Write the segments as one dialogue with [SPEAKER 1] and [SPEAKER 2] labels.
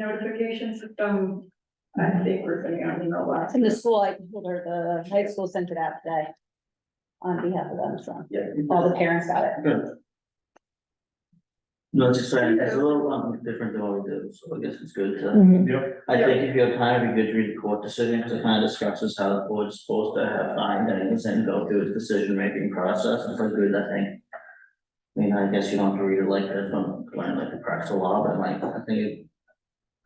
[SPEAKER 1] notification system. I think we're sending out an email blast.
[SPEAKER 2] In the school, I told her the high school sent it out today. On behalf of them, so
[SPEAKER 3] Yeah.
[SPEAKER 2] all the parents got it.
[SPEAKER 3] Good. No, it's exciting, it's a little um, different than what we do, so I guess it's good to,
[SPEAKER 4] Mm-hmm,
[SPEAKER 3] I think if you have time, it'd be good to read the court decision, because it kind of discusses how the board's supposed to have findings and go through its decision-making process, and for good, I think. I mean, I guess you don't have to read it like that from, when, like, the cracks of law, but like, I think it.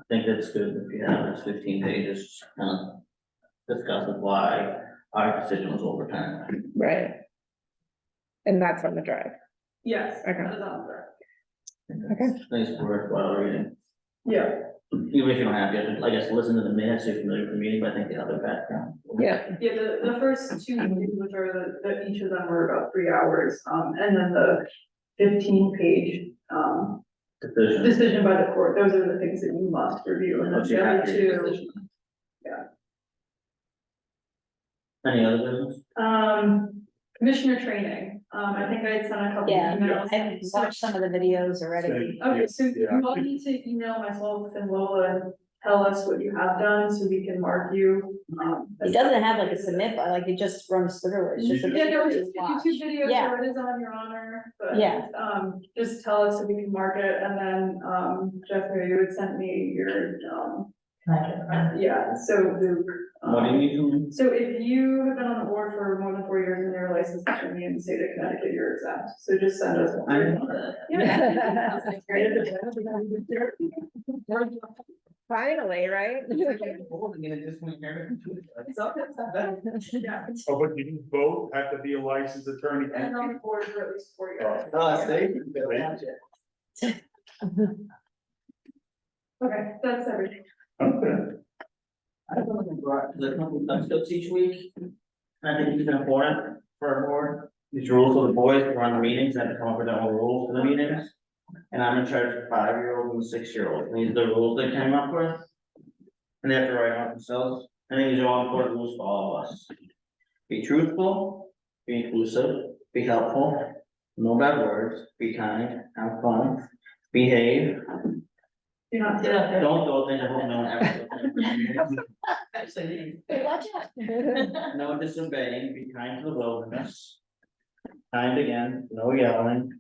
[SPEAKER 3] I think it's good if you have, it's fifteen pages, kind of discusses why our decision was overturned.
[SPEAKER 4] Right. And that's on the drive.
[SPEAKER 1] Yes.
[SPEAKER 4] Okay.
[SPEAKER 1] that is on there.
[SPEAKER 4] Okay.
[SPEAKER 3] I think it's worthwhile reading.
[SPEAKER 1] Yeah,
[SPEAKER 3] Even if you don't have, you have to, I guess, listen to the minutes, you're familiar with the meeting, but I think the other background.
[SPEAKER 4] Yeah,
[SPEAKER 1] yeah, the, the first two meetings, which are the, the, each of them were about three hours, um, and then the fifteen page, um,
[SPEAKER 3] Decision.
[SPEAKER 1] decision by the court, those are the things that you must review, and then
[SPEAKER 3] Once you
[SPEAKER 1] the other
[SPEAKER 3] have your
[SPEAKER 1] two.
[SPEAKER 3] decision.
[SPEAKER 1] yeah.
[SPEAKER 3] Any other business?
[SPEAKER 1] Um, commissioner training, um, I think I had sent a couple
[SPEAKER 2] Yeah,
[SPEAKER 1] emails.
[SPEAKER 2] I've watched some of the videos already.
[SPEAKER 1] Okay, so you
[SPEAKER 5] Yeah.
[SPEAKER 1] all need to email myself and Lola and tell us what you have done, so we can mark you, um.
[SPEAKER 2] It doesn't have like a submit, but like it just runs through, it. it's just. a
[SPEAKER 1] Yeah, no, it's
[SPEAKER 2] video to
[SPEAKER 1] just
[SPEAKER 2] watch.
[SPEAKER 1] YouTube videos,
[SPEAKER 2] Yeah.
[SPEAKER 1] so it is on your honor, but.
[SPEAKER 2] Yeah.
[SPEAKER 1] Um, just tell us so we can mark it, and then, um, Jeff, you had sent me your, um, yeah, so Luke. um,
[SPEAKER 3] What do you need from me?
[SPEAKER 1] So if you have been on the board for more than four years and you're licensed in the state of Connecticut, you're exempt, so just send us.
[SPEAKER 3] I don't know that.
[SPEAKER 1] Yeah.
[SPEAKER 4] finally, right?
[SPEAKER 1] Yeah,
[SPEAKER 5] Oh, but you can both have to be a licensed attorney.
[SPEAKER 1] and on the board for at least four years.
[SPEAKER 3] Oh,
[SPEAKER 1] Okay, that's everything.
[SPEAKER 5] Okay.
[SPEAKER 3] I don't think we're- The couple of times each week. I think it's important for a board. These rules for the boys who run the meetings, and come up with their own rules for the meetings. And I'm in charge of five-year-olds and six-year-olds. These are the rules they came up with. And they have to write them out themselves. I think these are all important rules for all of us. Be truthful, be inclusive, be helpful, no bad words, be kind, have fun, behave.
[SPEAKER 1] You're not. Yeah.
[SPEAKER 3] Don't go things I hope no one ever. Actually,
[SPEAKER 2] Hey, Watch out.
[SPEAKER 3] no disobeying, be kind to the wilderness. Kind again, no yelling.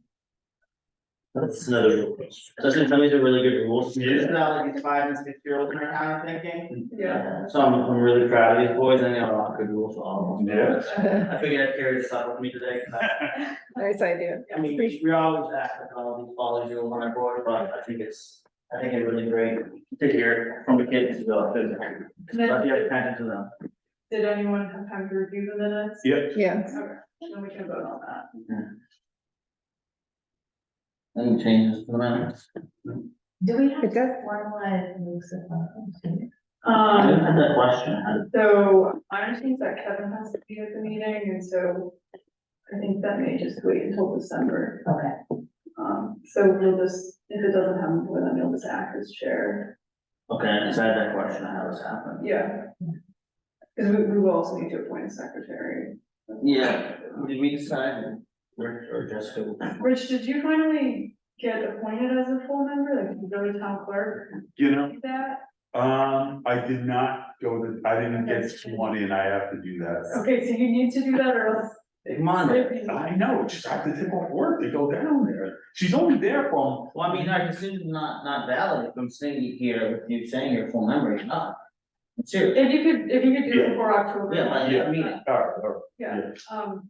[SPEAKER 3] That's another rule. Doesn't tell me the really good rules. It's not like these five and six year olds are kind of thinking.
[SPEAKER 1] Yeah.
[SPEAKER 3] So I'm, I'm really proud of these boys. I know a lot of good rules for all of them.
[SPEAKER 5] Yeah.
[SPEAKER 3] I figured I'd carry this up with me today. 'cause I-
[SPEAKER 4] Nice idea.
[SPEAKER 3] I mean, we we always act like all these follow you on our board, but I think it's, I think it's really great to hear from the kids as well.
[SPEAKER 1] And then-
[SPEAKER 3] But you have kind to them.
[SPEAKER 1] Did anyone have time to review the minutes?
[SPEAKER 5] Yeah.
[SPEAKER 4] Yeah.
[SPEAKER 1] Okay, Then we can vote on that.
[SPEAKER 3] Any changes to the minutes?
[SPEAKER 6] Do we have
[SPEAKER 4] It
[SPEAKER 6] to
[SPEAKER 4] does.
[SPEAKER 6] formalize Luke's appointment?
[SPEAKER 3] I didn't
[SPEAKER 1] Um,
[SPEAKER 3] have that question, I
[SPEAKER 1] so I understand that Kevin has to be at the meeting, and so I think that may just wait until December.
[SPEAKER 6] Okay,
[SPEAKER 1] Um, so we'll just, if it doesn't happen, before then we'll just act as chair.
[SPEAKER 3] okay, I just had that question, how this happened.
[SPEAKER 1] Yeah. Because we, we will also need to appoint a secretary.
[SPEAKER 3] Yeah. Did we decide, Rick or Jessica?
[SPEAKER 1] Rich, did you finally get appointed as a full member? Like, did you go to town clerk
[SPEAKER 5] You know,
[SPEAKER 1] and do that?
[SPEAKER 5] um, I did not go to, I didn't get sworn in, I have to do that.
[SPEAKER 1] Okay, so you need to do that or else.
[SPEAKER 3] Big Monday.
[SPEAKER 5] I know, just have to tip off work to go down there. She's only there from,
[SPEAKER 3] Well, I mean, our decision's not, not valid, if I'm saying you here, if you're saying you're full member, you're not. Seriously,
[SPEAKER 1] If you could, if you could do it
[SPEAKER 5] Yeah.
[SPEAKER 1] before October.
[SPEAKER 3] yeah, like, I mean,
[SPEAKER 5] all right, all right,
[SPEAKER 1] Yeah, um.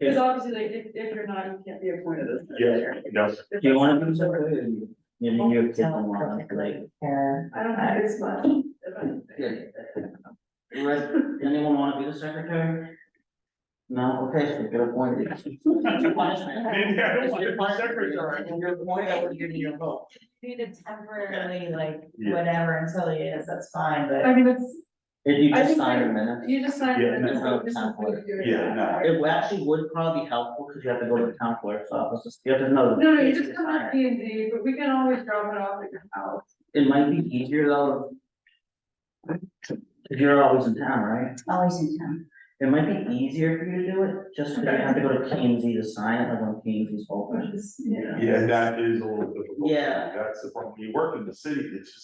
[SPEAKER 1] Because
[SPEAKER 3] Yeah.
[SPEAKER 1] obviously, like, if, if you're not, you can't be appointed as.
[SPEAKER 5] yeah, yes.
[SPEAKER 3] do you wanna do something? You mean you're kicking on, like,
[SPEAKER 6] Fair.
[SPEAKER 1] I don't think it's much. if anything.
[SPEAKER 3] right, anyone wanna be the secretary? No, okay, so get appointed. Punishment.
[SPEAKER 5] Maybe I don't
[SPEAKER 3] If
[SPEAKER 5] want
[SPEAKER 3] you're
[SPEAKER 5] to be
[SPEAKER 3] punishment,
[SPEAKER 5] secretary.
[SPEAKER 3] if you're appointed, I would give you a vote.
[SPEAKER 6] You did temporarily, like,
[SPEAKER 5] Yeah.
[SPEAKER 6] whatever until he is, that's fine, but.
[SPEAKER 1] I mean, it's,
[SPEAKER 3] If you
[SPEAKER 1] I
[SPEAKER 3] just
[SPEAKER 1] think
[SPEAKER 3] sign
[SPEAKER 1] I-
[SPEAKER 3] a minute.
[SPEAKER 1] you just signed
[SPEAKER 5] Yeah,
[SPEAKER 1] it and
[SPEAKER 3] no.
[SPEAKER 1] it's not- this is what you're doing.
[SPEAKER 5] Yeah, no.
[SPEAKER 3] It would- actually would probably be helpful, because you have to go to the town clerk's office, you have to know. the
[SPEAKER 1] No, no, you
[SPEAKER 3] dates
[SPEAKER 1] just
[SPEAKER 3] of
[SPEAKER 1] come
[SPEAKER 3] hire.
[SPEAKER 1] up P and D, but we can always drop it off at your house.
[SPEAKER 3] It might be easier though. If you're always in town, right?
[SPEAKER 6] Always in town.
[SPEAKER 3] It might be easier for you to do it, just because you have to go to P&Z to sign it, like when P&Z's open.
[SPEAKER 1] Which is, yeah.
[SPEAKER 5] Yeah, that is a little difficult.
[SPEAKER 3] Yeah.
[SPEAKER 5] That's the problem, you work in the city, it's just